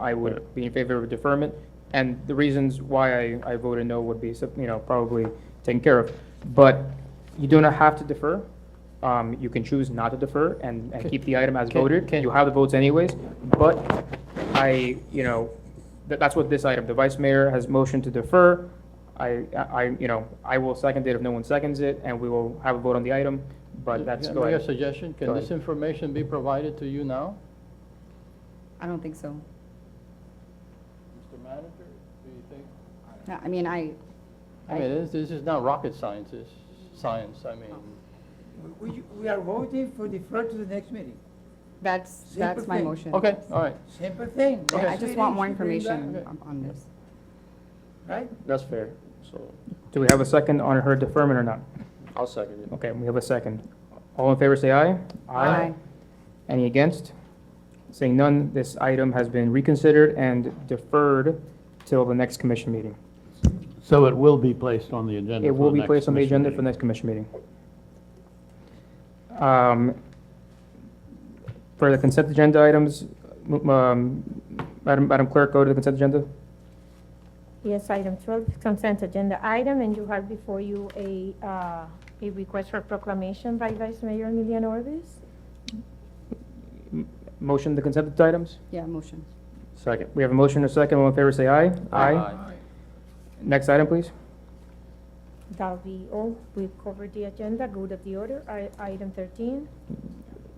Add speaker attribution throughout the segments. Speaker 1: I would be in favor of deferment. And the reasons why I, I voted no would be, you know, probably taken care of. But you do not have to defer. Um, you can choose not to defer and, and keep the item as
Speaker 2: Can-
Speaker 1: voted.
Speaker 2: can-
Speaker 1: You have the votes anyways, but I, you know, that, that's what this item, the vice mayor has motioned to defer. I, I, you know, I will second it if no one seconds it, and we will have a vote on the item, but that's, go
Speaker 2: Make a
Speaker 1: ahead.
Speaker 2: suggestion,
Speaker 1: Go
Speaker 2: can this
Speaker 1: ahead.
Speaker 2: information be provided to you now?
Speaker 3: I don't think so.
Speaker 2: Mr. Manager, do you think?
Speaker 3: No, I mean, I,
Speaker 2: I mean, this, this is not rocket science, it's science, I mean,
Speaker 4: We, we- we are voting for defer to the next meeting.
Speaker 3: that's, that's my
Speaker 4: thing.
Speaker 3: motion.
Speaker 2: okay, all right,
Speaker 4: Simple thing.
Speaker 3: I
Speaker 4: Next
Speaker 3: just want more
Speaker 4: meeting should bring back,
Speaker 3: information on- on this.
Speaker 4: Right?
Speaker 5: That's fair, so
Speaker 1: Do we have a second on her deferment or not?
Speaker 5: I'll second it.
Speaker 1: Okay, we have a second. All in favor, say aye. Any against? Seeing none, this item has been reconsidered and deferred till the next commission meeting.
Speaker 6: So it will be placed on the agenda
Speaker 1: It
Speaker 6: for
Speaker 1: will
Speaker 6: the
Speaker 1: be
Speaker 6: next
Speaker 1: placed on the
Speaker 6: commission
Speaker 1: agenda for the next commission meeting. Um, For the consent agenda items, m- um, Madam Madam Clerk, go to the consent agenda.
Speaker 7: Yes, item 12 is consent agenda item, and you have before you a, uh, a request for proclamation by Vice Mayor Emiliano Orbis.
Speaker 1: Motion, the consent items?
Speaker 3: Yeah, motion.
Speaker 5: Second.
Speaker 1: We have a motion and a second. All in favor, say aye.
Speaker 5: Aye.
Speaker 1: Next item, please.
Speaker 7: That'll be all. We've covered the agenda, good of the order. I- Item 13,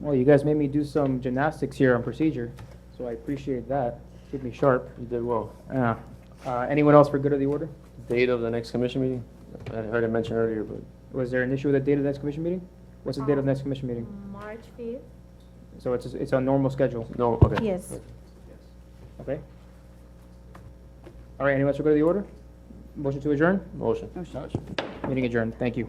Speaker 1: Well, you guys made me do some gymnastics here on procedure, so I appreciate that. Keep me sharp.
Speaker 5: You did well.
Speaker 1: Uh, uh, Anyone else for good of the order?
Speaker 5: Date of the next commission meeting? I heard it mentioned earlier, but
Speaker 1: Was there an issue with the date of the next commission meeting? What's the date of the next commission meeting?
Speaker 7: March 5th.
Speaker 1: So it's, it's on normal schedule,
Speaker 5: no, okay.
Speaker 7: Yes.
Speaker 1: okay? All right, anyone else for good of the order? Motion to adjourn?
Speaker 5: Motion.
Speaker 3: Motion.
Speaker 2: Motion.
Speaker 1: Meeting adjourned, thank you.